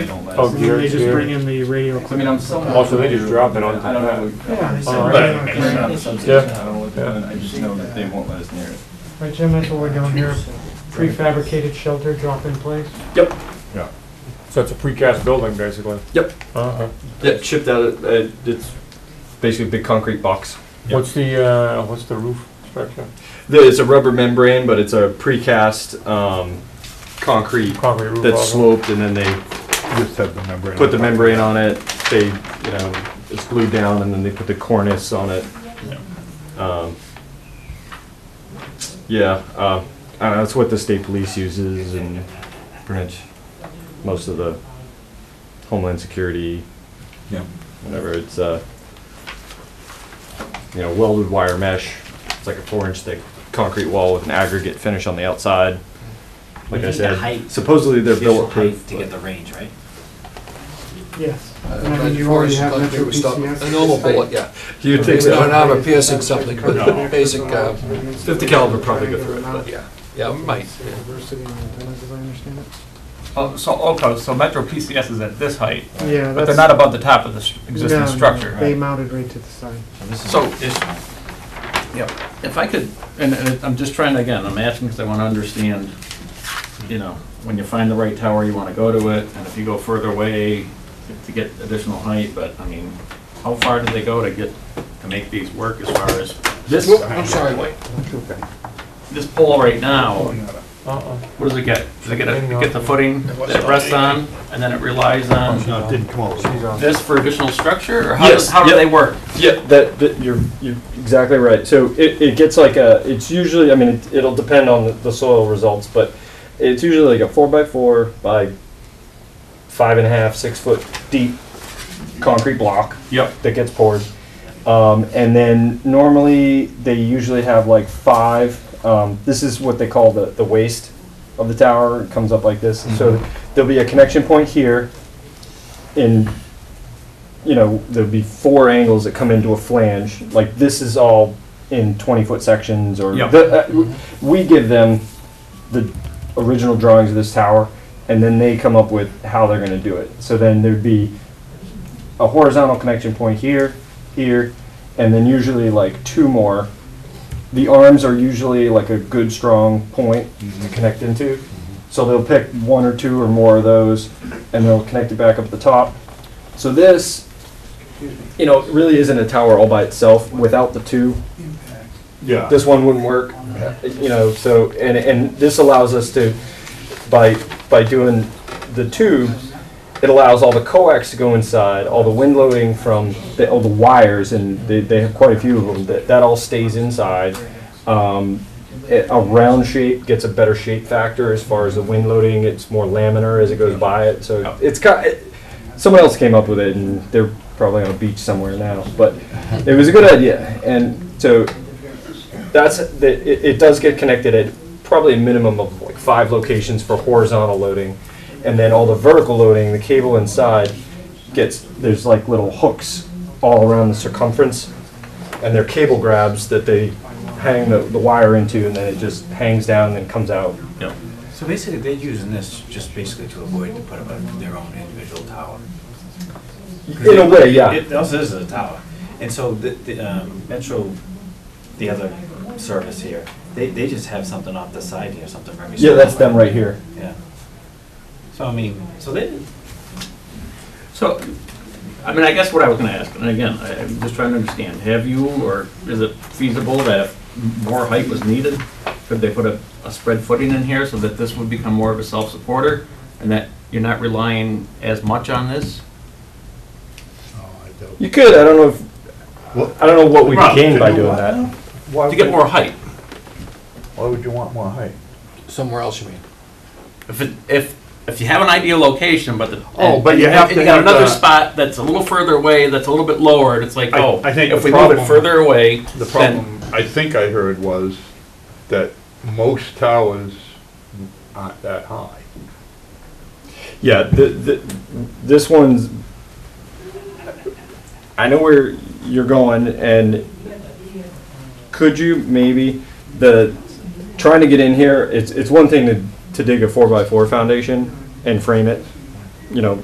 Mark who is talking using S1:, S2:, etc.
S1: Oh,
S2: And
S1: gear,
S2: then they just
S1: gear.
S2: bring in the radio
S3: I mean,
S2: equipment.
S3: I'm somewhat.
S1: Also, they just drop it on
S3: I don't know.
S4: Yeah, they
S2: All
S4: said,
S2: right.
S4: right
S3: But it's
S4: on
S3: not
S4: the
S3: a
S4: grant.
S3: substation,
S1: Yeah.
S3: I don't know what they're doing, I just know that they won't let us near it.
S4: Right, Jim, that's what we're doing here, prefabricated shelter, drop in place.
S5: Yep,
S1: So it's a precast building, basically?
S5: Yep.
S1: Uh-huh.
S5: yep, shipped out, of- uh, it's basically a big concrete box.
S1: What's the, uh, what's the roof structure?
S5: There- It's a rubber membrane, but it's a precast, um, concrete
S1: Concrete roof?
S5: that's
S1: also?
S5: sloped and then they
S6: Just have the membrane.
S5: put the membrane on it, they, you know, it's glued down and then they put the cornice on it. Um, Yeah, uh, I don't know, that's what the state police uses and pretty much most of the homeland security.
S3: Yeah.
S5: Whatever, it's, uh, you know, welded wire mesh, it's like a four inch thick concrete wall with an aggregate finish on the outside. Like
S7: You
S5: I
S7: need the height.
S5: said, supposedly they're
S7: Additional
S5: built
S7: height
S5: proof.
S7: to get the range, right?
S4: Yes. And I
S8: But
S4: mean, you
S8: for
S4: already
S8: us,
S4: have
S8: like,
S4: metro
S8: we stop-
S4: PCS.
S8: A normal bullet, yeah.
S5: You
S8: We
S5: think
S8: don't
S5: so?
S8: have a piercing something, but basic, uh,
S5: 50 caliber probably go through it, but
S8: yeah, yeah, might.
S4: University in Antennas, as I understand it.
S9: Oh, so, okay, so Metro PCS is at this height,
S4: Yeah,
S9: but
S4: that's.
S9: they're not above the top of the s-
S4: no,
S9: existing
S4: no,
S9: structure.
S4: They mounted right to the side.
S3: So, is,
S10: If I could, and and I'm just trying to, again, I'm asking because I want to understand, you know, when you find the right tower, you want to go to it, and if you go further away to get additional height, but, I mean, how far do they go to get, to make these work as far as this?
S8: Whoop, I'm sorry.
S10: This pole right now,
S1: Uh-uh.
S10: what does it get? Does it get, a- it get the footing that it rests on, and then it relies on
S6: No, it didn't come out.
S1: She's on.
S10: this for additional structure, or how,
S5: Oh, Yes,
S10: how do
S5: yep.
S10: they work?
S5: Yeah, that, that you're you're exactly right. So it, it gets like a it's usually I mean it, it'll depend on the, the soil results, but it's usually like a four by four by five and a half six foot deep concrete block.
S10: Yep.
S5: That gets poured, um, and then normally they usually have like five. Um, this is what they call the the waist of the tower. It comes up like this. So there'll be a connection point here, in you know, there'd be four angles that come into a flange. Like this is all in 20 foot sections, or
S9: Yeah.
S5: the, uh, w- we give them the original drawings of this tower, and then they come up with how they're going to do it. So then there'd be a horizontal connection point here, here, and then usually like two more. The arms are usually like a good strong point to connect into. So they'll pick one or two or more of those, and they'll connect it back up at the top. So this, you know, really isn't a tower all by itself. Without the two,
S6: Yeah.
S5: this one wouldn't work. You know, so and and this allows us to, by by doing the tube, it allows all the coax to go inside, all the wind loading from the, all the wires, and they, they have quite a few of them. That that all stays inside. Um, it- a round shape gets a better shape factor as far as the wind loading. It's more laminar as it goes by it. So it's kind. It, someone else came up with it, and they're probably on a beach somewhere now. But it was a good idea, and so that's the, it, it does get connected at probably a minimum of like five locations for horizontal loading, and then all the vertical loading, the cable inside gets there's like little hooks all around the circumference, and they're cable grabs that they hang the, the wire into, and then it just hangs down and comes out.
S7: So basically, they're using this just basically to avoid to put up a- their own individual tower.
S5: In a way, yeah.
S7: It also is a tower. And so the, the, um, Metro, the other service here, they, they just have something off the side here, something very.
S5: yeah, that's
S7: small.
S5: them right here.
S7: Yeah. So I mean, so they,
S10: So, I mean, I guess what I was gonna ask, and again, I- I'm just trying to understand, have you, or is it feasible that if more height was needed, could they put a, a spread footing in here so that this would become more of a self-supporter? And that you're not relying as much on this?
S6: Oh, I don't-
S5: You could. I don't know if
S6: Well-
S5: I don't know what we
S6: Rob,
S5: gained by
S6: to do
S5: doing
S6: what?
S5: that.
S6: Why
S10: To get
S6: would-
S10: more height,
S6: Why would you want more height?
S8: Somewhere else, you mean?
S10: if it, if, if you have an ideal location, but the.
S6: Oh,
S10: and-
S6: but you
S10: and
S6: have to
S10: got
S6: have
S10: Another
S6: the-
S10: spot that's a little further away, that's a little bit lower, and it's like,
S6: I-
S10: oh,
S6: I think
S10: if
S6: the
S10: we move it
S6: problem-
S10: further away,
S6: The
S10: then
S6: problem, I think I heard was that most towers aren't that high.
S5: Yeah, the, the, this one's. I know where you're going, and could you maybe the trying to get in here? It's it's one thing to to dig a four by four foundation and frame it, you know,